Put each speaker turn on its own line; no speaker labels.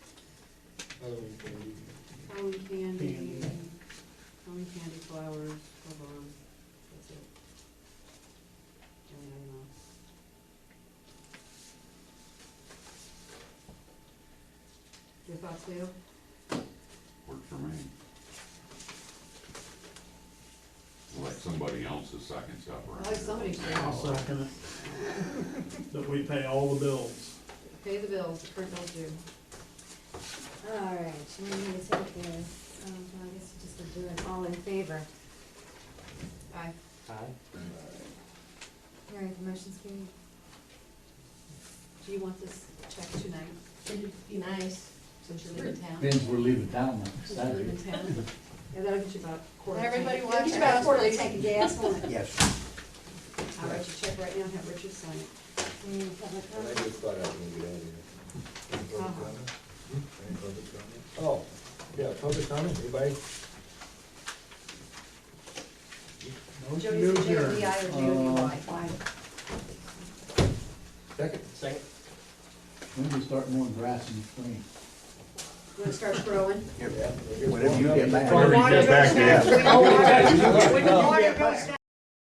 Halloween candy.
Halloween candy,
Candy.
Halloween candy flowers, hold on, that's it. Any item else? Your thoughts, Dale?
Worked for me. Let somebody else's second stuff around.
I like somebody's
I'll
second.
second it. That we pay all the bills.
Pay the bills, the current bills due.
All right, so we need to take this, um, well, I guess we just would do it all in favor.
Aye.
All right, the motion's carried.
Do you want this checked tonight,
It'd be nice.
since you're leaving town?
Means we're leaving town on
Since you're
Saturday.
leaving town? Yeah, that'll get you about quarter.
Everybody
watch.
watch. Get about a quarterly tank of gas, won't it?
Yes.
I'll write you a check right now and have Richard sign it.
Any
Mm,
public
And I
comment?
just thought I was gonna get out of here. Any public
Uh-huh.
comment? Any public comment? Oh, yeah, public comment, anybody?
Jody's a J-O-D-I or J-O-D-Y.
Second?
Second?
When do we start mowing grass in the spring?
You wanna start growing?
Yeah, I guess
Whenever you
one
get
of
back.
them-
Whenever you get back, yeah.
When the water- when the water goes